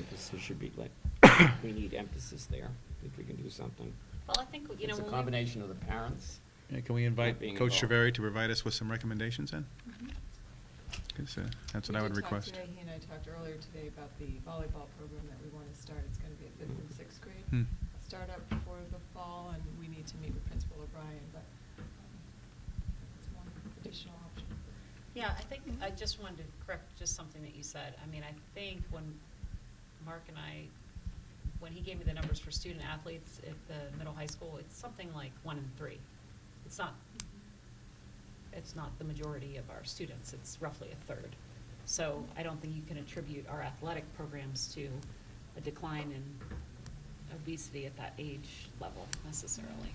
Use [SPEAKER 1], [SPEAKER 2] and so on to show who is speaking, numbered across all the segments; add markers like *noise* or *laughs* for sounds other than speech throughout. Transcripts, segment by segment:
[SPEAKER 1] emphasis should be like, we need emphasis there, if we can do something.
[SPEAKER 2] Well, I think, you know,
[SPEAKER 1] It's a
[SPEAKER 2] when we-
[SPEAKER 1] combination of the parents.
[SPEAKER 3] Yeah, Can we invite
[SPEAKER 1] being
[SPEAKER 3] Coach
[SPEAKER 1] involved.
[SPEAKER 3] Treveri to provide us with some recommendations then?
[SPEAKER 2] Mhm.
[SPEAKER 3] Okay, so That's what
[SPEAKER 4] We
[SPEAKER 3] I
[SPEAKER 4] did
[SPEAKER 3] would
[SPEAKER 4] talk
[SPEAKER 3] request.
[SPEAKER 4] today, He and I talked earlier today about the volleyball program that we want to start. It's going to be at fifth and sixth
[SPEAKER 3] Hmm.
[SPEAKER 4] grade. Start up before the fall, and we need to meet with Principal O'Brien, but um, it's one additional option.
[SPEAKER 2] Yeah, I think,
[SPEAKER 1] Mm-hmm.
[SPEAKER 2] I just wanted to correct just something that you said. I mean, I think when Mark and I, when he gave me the numbers for student athletes at the middle high school, it's something like one in three. It's not, it's not the majority of our students, it's roughly a third. So I don't think you can attribute our athletic programs to a decline in obesity at that age level necessarily.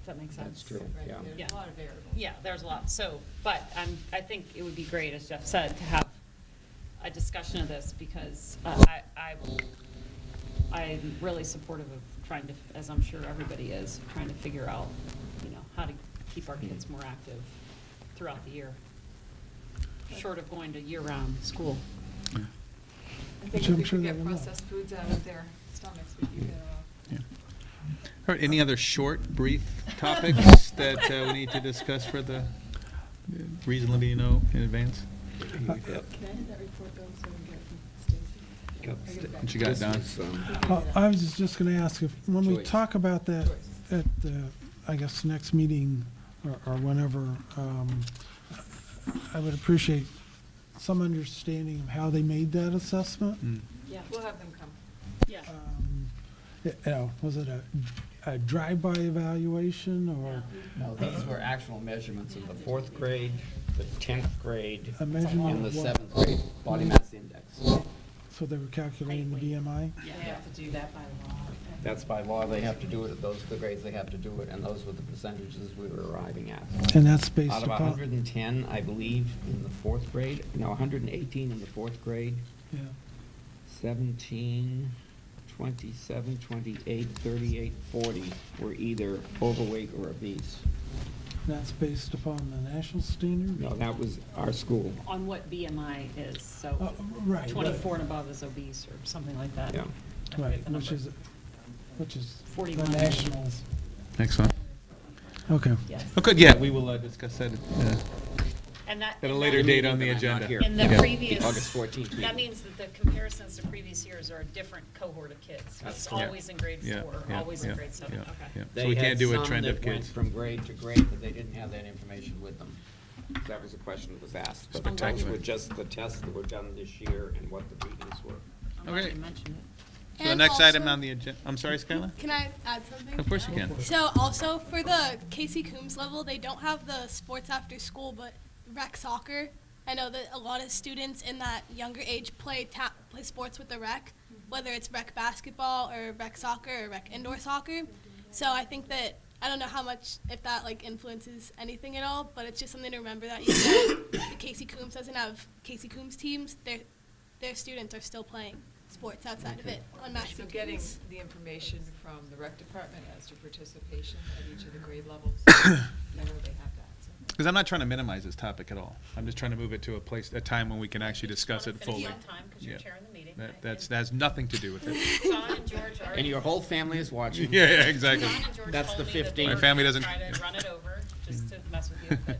[SPEAKER 2] Does that make
[SPEAKER 1] That's
[SPEAKER 2] sense?
[SPEAKER 1] true.
[SPEAKER 4] Right,
[SPEAKER 1] Yeah.
[SPEAKER 4] There's
[SPEAKER 2] Yeah.
[SPEAKER 4] a lot of variables.
[SPEAKER 2] Yeah, there's a lot, so, but I'm, I think it would be great, as Jeff said, to have a discussion of this, because uh, I, I will, I'm really supportive of trying to, as I'm sure everybody is, trying to figure out, you know, how to keep our kids more active throughout the year, short of going to year-round school.
[SPEAKER 3] Yeah,
[SPEAKER 4] I think
[SPEAKER 5] Which
[SPEAKER 4] if
[SPEAKER 5] I'm
[SPEAKER 4] we
[SPEAKER 5] sure
[SPEAKER 4] can
[SPEAKER 5] they
[SPEAKER 4] get
[SPEAKER 5] will.
[SPEAKER 4] processed foods out of their stomachs, we uh, can get
[SPEAKER 3] yeah.
[SPEAKER 4] them
[SPEAKER 3] All right, any other short, brief topics
[SPEAKER 4] *laughs*
[SPEAKER 3] that uh, we need to discuss for the, reasonably, you know, in advance?
[SPEAKER 4] off. Can I have that report though, so we can get it from Stacy? I get it back.
[SPEAKER 3] What you got, Don?
[SPEAKER 1] um,
[SPEAKER 5] Uh, I was just going to ask if, when we
[SPEAKER 1] Choice.
[SPEAKER 5] talk about that
[SPEAKER 4] Choice.
[SPEAKER 5] at the, I guess, next meeting or- or whenever, um, I would appreciate some understanding of how they made that assessment.
[SPEAKER 3] Mm.
[SPEAKER 2] Yeah,
[SPEAKER 4] We'll have them come.
[SPEAKER 2] yeah.
[SPEAKER 1] Mm.
[SPEAKER 5] Um, You know, was it a, a drive-by evaluation or
[SPEAKER 1] No, these were actual measurements of the fourth grade, the tenth grade,
[SPEAKER 5] a measurement?
[SPEAKER 1] and the
[SPEAKER 5] of what?
[SPEAKER 1] seventh grade body mass index.
[SPEAKER 5] So they were calculating the BMI?
[SPEAKER 4] They have to do that by law.
[SPEAKER 1] That's by law, they have to do it, those are the grades they have to do it, and those were the percentages we were arriving at.
[SPEAKER 5] And that's based
[SPEAKER 1] Out of
[SPEAKER 5] upon?
[SPEAKER 1] hundred and ten, I believe, in the fourth grade, no, hundred and eighteen in the fourth grade,
[SPEAKER 5] Yeah.
[SPEAKER 1] 17, 27, 28, 38, 40 were either overweight or obese.
[SPEAKER 5] And That's based upon the national standard?
[SPEAKER 1] No, that was our school,
[SPEAKER 2] On what BMI is,
[SPEAKER 5] Uh,
[SPEAKER 2] so
[SPEAKER 5] Right.
[SPEAKER 2] twenty-four and above is obese, or something like that.
[SPEAKER 1] yeah.
[SPEAKER 2] I forget
[SPEAKER 5] Right,
[SPEAKER 2] the
[SPEAKER 5] which
[SPEAKER 2] number.
[SPEAKER 5] is, which is the
[SPEAKER 2] 41.
[SPEAKER 5] nationals.
[SPEAKER 3] Excellent.
[SPEAKER 5] Okay.
[SPEAKER 2] Yes.
[SPEAKER 3] Okay, yeah, we will uh, discuss that uh,
[SPEAKER 2] And that.
[SPEAKER 3] at a
[SPEAKER 2] and
[SPEAKER 3] later
[SPEAKER 2] that-
[SPEAKER 3] date on the
[SPEAKER 1] I'm not
[SPEAKER 3] agenda.
[SPEAKER 1] here.
[SPEAKER 2] In the
[SPEAKER 3] Yeah.
[SPEAKER 2] previous.
[SPEAKER 1] August 14th
[SPEAKER 2] That
[SPEAKER 1] meeting.
[SPEAKER 2] means that the comparisons to previous years are a different cohort of kids.
[SPEAKER 1] That's
[SPEAKER 2] It's
[SPEAKER 1] correct.
[SPEAKER 2] always in grade
[SPEAKER 3] Yeah,
[SPEAKER 2] four,
[SPEAKER 3] yeah,
[SPEAKER 2] always in
[SPEAKER 3] yeah,
[SPEAKER 2] grade seven,
[SPEAKER 3] yeah,
[SPEAKER 2] okay.
[SPEAKER 3] yeah. So we
[SPEAKER 1] They
[SPEAKER 3] can't
[SPEAKER 1] had
[SPEAKER 3] do a
[SPEAKER 1] some
[SPEAKER 3] trend
[SPEAKER 1] that
[SPEAKER 3] of
[SPEAKER 1] went
[SPEAKER 3] kids.
[SPEAKER 1] From grade to grade, but they didn't have that information with them. That was a question that was asked. But Those
[SPEAKER 3] Spectacular.
[SPEAKER 1] were just the tests that were done this year and what the readings were.
[SPEAKER 2] I'm glad
[SPEAKER 3] Okay.
[SPEAKER 2] you mentioned it.
[SPEAKER 3] So The
[SPEAKER 6] And
[SPEAKER 3] next item
[SPEAKER 6] also-
[SPEAKER 3] on the agenda, I'm sorry, Skylar?
[SPEAKER 6] Can I add something?
[SPEAKER 3] Of course you can.
[SPEAKER 6] So also for the Casey Coombs level, they don't have the sports after school, but rec soccer. I know that a lot of students in that younger age play tap, play sports with the rec, whether it's rec basketball or rec soccer or rec indoor soccer. So I think that I don't know how much if that like influences anything at all, but it's just something to remember that even though the Casey Coombs doesn't have Casey Coombs teams, their their students are still playing sports outside of it on match
[SPEAKER 4] So
[SPEAKER 6] weekends.
[SPEAKER 4] getting the information from the rec department as to participation at each of the grade levels, whenever they have that, so.
[SPEAKER 3] Because I'm not trying to minimize this topic at all. I'm just trying to move it to a place, a time when we can actually
[SPEAKER 2] You just
[SPEAKER 3] discuss
[SPEAKER 2] wanna
[SPEAKER 3] it fully.
[SPEAKER 2] Finish on time, because you're
[SPEAKER 3] Yeah.
[SPEAKER 2] chairing the meeting. I-
[SPEAKER 3] That, that's, that has nothing to do with it.
[SPEAKER 2] and John and George
[SPEAKER 1] *laughs*
[SPEAKER 2] are.
[SPEAKER 1] And your whole family is
[SPEAKER 3] Yeah,
[SPEAKER 1] watching.
[SPEAKER 3] yeah,
[SPEAKER 2] *laughs*
[SPEAKER 3] exactly.
[SPEAKER 2] John and George
[SPEAKER 1] That's
[SPEAKER 2] told
[SPEAKER 1] the
[SPEAKER 2] me that they
[SPEAKER 1] 15.
[SPEAKER 2] were
[SPEAKER 3] My family
[SPEAKER 2] gonna
[SPEAKER 3] doesn't-
[SPEAKER 2] Try to run it over, just to mess with you, but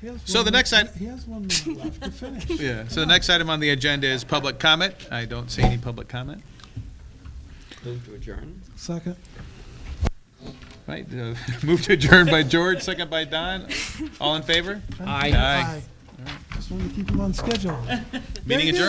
[SPEAKER 5] He has
[SPEAKER 3] So
[SPEAKER 5] one
[SPEAKER 3] the
[SPEAKER 5] minute-
[SPEAKER 3] next item-
[SPEAKER 5] He has one minute left to
[SPEAKER 3] *laughs*
[SPEAKER 5] finish.
[SPEAKER 3] Yeah, so the next item on the agenda is public comment. I don't see any public comment.
[SPEAKER 1] Move to adjourn.
[SPEAKER 5] Second.
[SPEAKER 3] Right, uh, *laughs* move to adjourn by George, second by Don. All in favor?
[SPEAKER 1] Aye.
[SPEAKER 3] Aye.
[SPEAKER 5] Just wanted to keep him on schedule.
[SPEAKER 3] Meeting
[SPEAKER 5] Very good.
[SPEAKER 3] adjourned.